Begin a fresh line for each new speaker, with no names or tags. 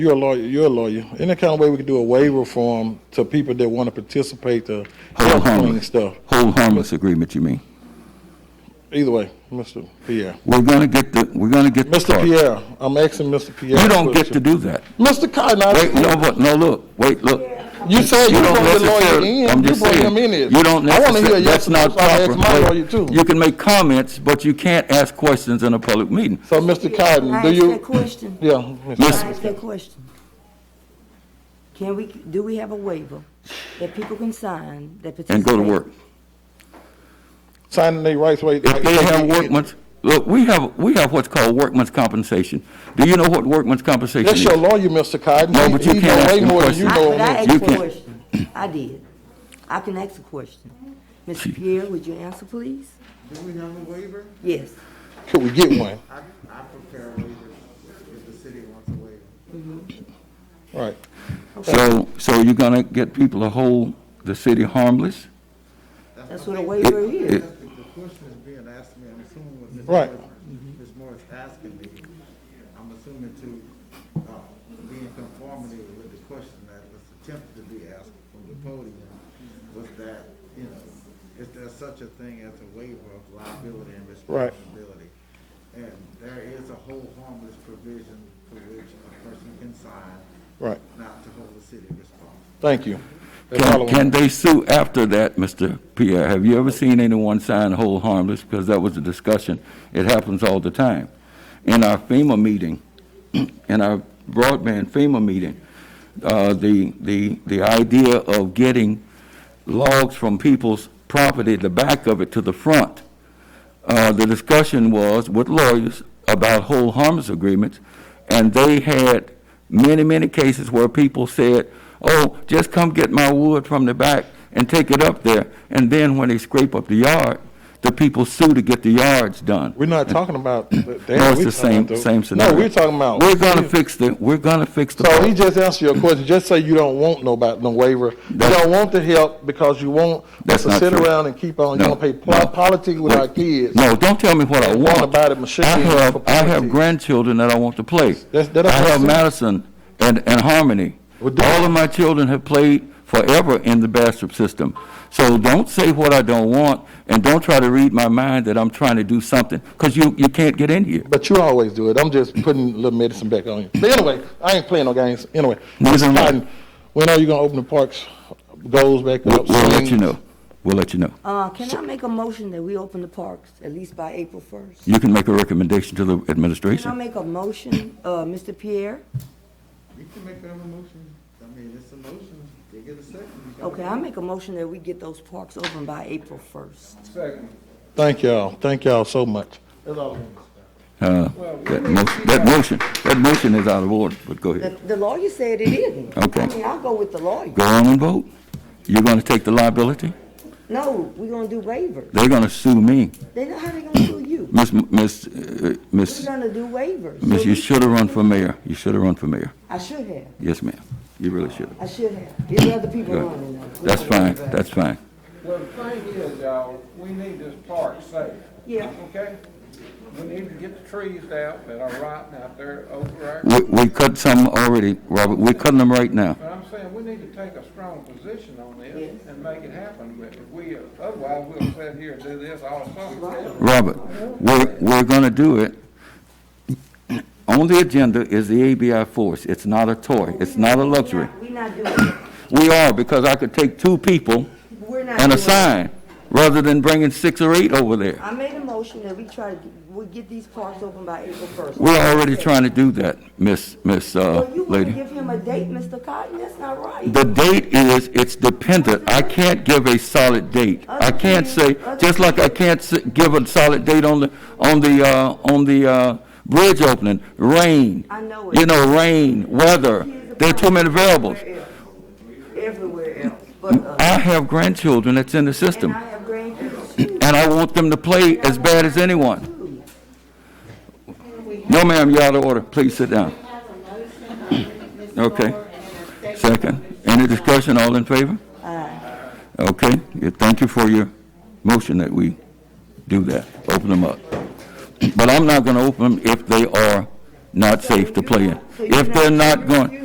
You're a lawyer, you're a lawyer. Any kind of way we could do a waiver form to people that want to participate to
Hold
help clean
harmless.
stuff.
Hold harmless agreement, you mean?
Either way, Mr. Pierre.
We're gonna get the, we're gonna get the
Mr.
card.
Pierre, I'm asking Mr. Pierre.
You don't get to
the
do that.
Mr. Cotton, I-
Wait, no, but, no, look, wait, look.
you said you
don't
brought the lawyer
necessarily-
in.
I'm
You
just
brought him in
saying,
here.
You don't
I want to hear
necessarily,
a yes
that's
or
not
no, so I
proper.
asked my
Wait,
lawyer too.
You can make comments, but you can't ask questions in a public meeting.
So, Mr. Cotton,
I
do
asked
you?
a question.
Yeah.
I
Mr.
asked a question. Can we, do we have a waiver that people can sign that participate?
And go to work.
Signing their rights way.
If they have workman's, look, we have, we have what's called workman's compensation. Do you know what workman's compensation
That's
is?
your lawyer, Mr. Cotton.
No,
He-
but you
he
can't
know
ask
way
him
more than you
questions.
know
I,
on
but I
this.
You
asked a
can't-
question. I did. I can ask a question. Mr. Pierre, would you answer, please?
Do we have a waiver?
Yes.
Could we get one?
I, I prepare a waiver if the city wants a waiver.
Right.
So, so you're gonna get people to hold the city harmless?
That's what a waiver
It-
is.
it-
The the question is being asked me, I'm assuming what Ms.
Right.
Morris, Ms. Morris asking me, I'm assuming to, uh, be in conformity with the question that was attempted to be asked from the podium, was that, you know, is there such a thing as a waiver of liability and
Right.
responsibility? And there is a whole harmless provision for which a person can sign
Right.
not to hold the city responsible.
Thank you. That's all I
Can,
want.
can they sue after that, Mr. Pierre? Have you ever seen anyone sign hold harmless? Because that was a discussion. It happens all the time. In our FEMA meeting, in our broadband FEMA meeting, uh, the, the, the idea of getting logs from people's property, the back of it to the front, uh, the discussion was with lawyers about whole harmless agreements, and they had many, many cases where people said, oh, just come get my wood from the back and take it up there. And then when they scrape up the yard, the people sue to get the yards done.
We're not talking about.
No, it's the same, same scenario.
No, we're talking about.
We're gonna fix the, we're gonna fix the.
So he just answered your question. Just say you don't want no about no waiver. You
That's-
don't want the help because you want us
That's
to
not
sit
true.
around and keep on. You
No,
want to play
no.
pol- politics with our kids.
No, don't tell me what I
It's
want.
all about it, machete
I
for
have, I have
politics.
grandchildren that I want to play.
That's- that
I
don't
have
make
Madison and, and Harmony.
Well, do-
All of my children have played forever in the Bastrop system. So don't say what I don't want, and don't try to read my mind that I'm trying to do something, because you, you can't get in here.
But you always do it. I'm just putting a little medicine back on you. But anyway, I ain't playing no games. Anyway,
No, no,
Mr.
no.
Cotton, when are you gonna open the parks? Goals back
We'll,
up.
we'll let you
swings?
know. We'll let you know.
Uh, can I make a motion that we open the parks at least by April first?
You can make a recommendation to the
Can I
administration.
make a motion, uh, Mr. Pierre?
You can make whatever motion, I mean, it's a motion, they get a second. you gotta
Okay, I make a motion that we get those parks open by April first.
Thank y'all. Thank y'all so much.
Uh, That mo- that motion, that motion is out of order, but go ahead.
The the lawyer said it isn't.
Okay.
I mean, I'll go with the lawyer.
Go on and vote. You're gonna take the liability?
No, we're gonna do waivers.
They're gonna sue me.
They know how they gonna sue you.
Miss, Miss, uh,
We're
Miss,
gonna do waivers.
Miss, you should have run for mayor. You should have run for mayor.
I should have,
Yes, ma'am. You really should have.
I should have. There's other people
Good.
running though.
That's fine, that's fine.
Well, the thing is, y'all, we need this park safe.
Yeah.
Okay? We need to get the trees out that are rotting out there over there.
We, we cut some already, Robert. We're cutting them right now.
But I'm saying, we need to take a strong position on this and make it happen. But if we, otherwise, we'll sit here and do this all summer.
Robert, we're, we're gonna do it. On the agenda is the ABI force. It's not a toy. It's not a luxury.
We're not doing, it.
We are, because I could take two people
we're not.
and a
doing it.
sign, rather than bringing six or eight over there.
I made a motion that we try to, get- we get these parks open by April first.
We're already trying to do that, Miss, Miss, uh,
Well, you wanna
lady.
give him a date, Mr. Cotton? That's not right.
The date is, it's dependent. I can't give a solid date. I can't say, just like I can't s- give a solid date on the, on the, uh, on the, uh, bridge opening, rain.
I know it.
You know, rain, weather, there are too many variables.
Everywhere else. Everywhere else, but, uh,
I have grandchildren that's in the
and
system,
I have grandkids too.
and I want them to play as bad as anyone. No, ma'am, you're out of order. Please sit down. Okay. Second. Any discussion? All in favor? Okay. Yeah, Thank you for your motion that we do that, open them up. But I'm not going to open them if they are not safe to play in. If they're not going.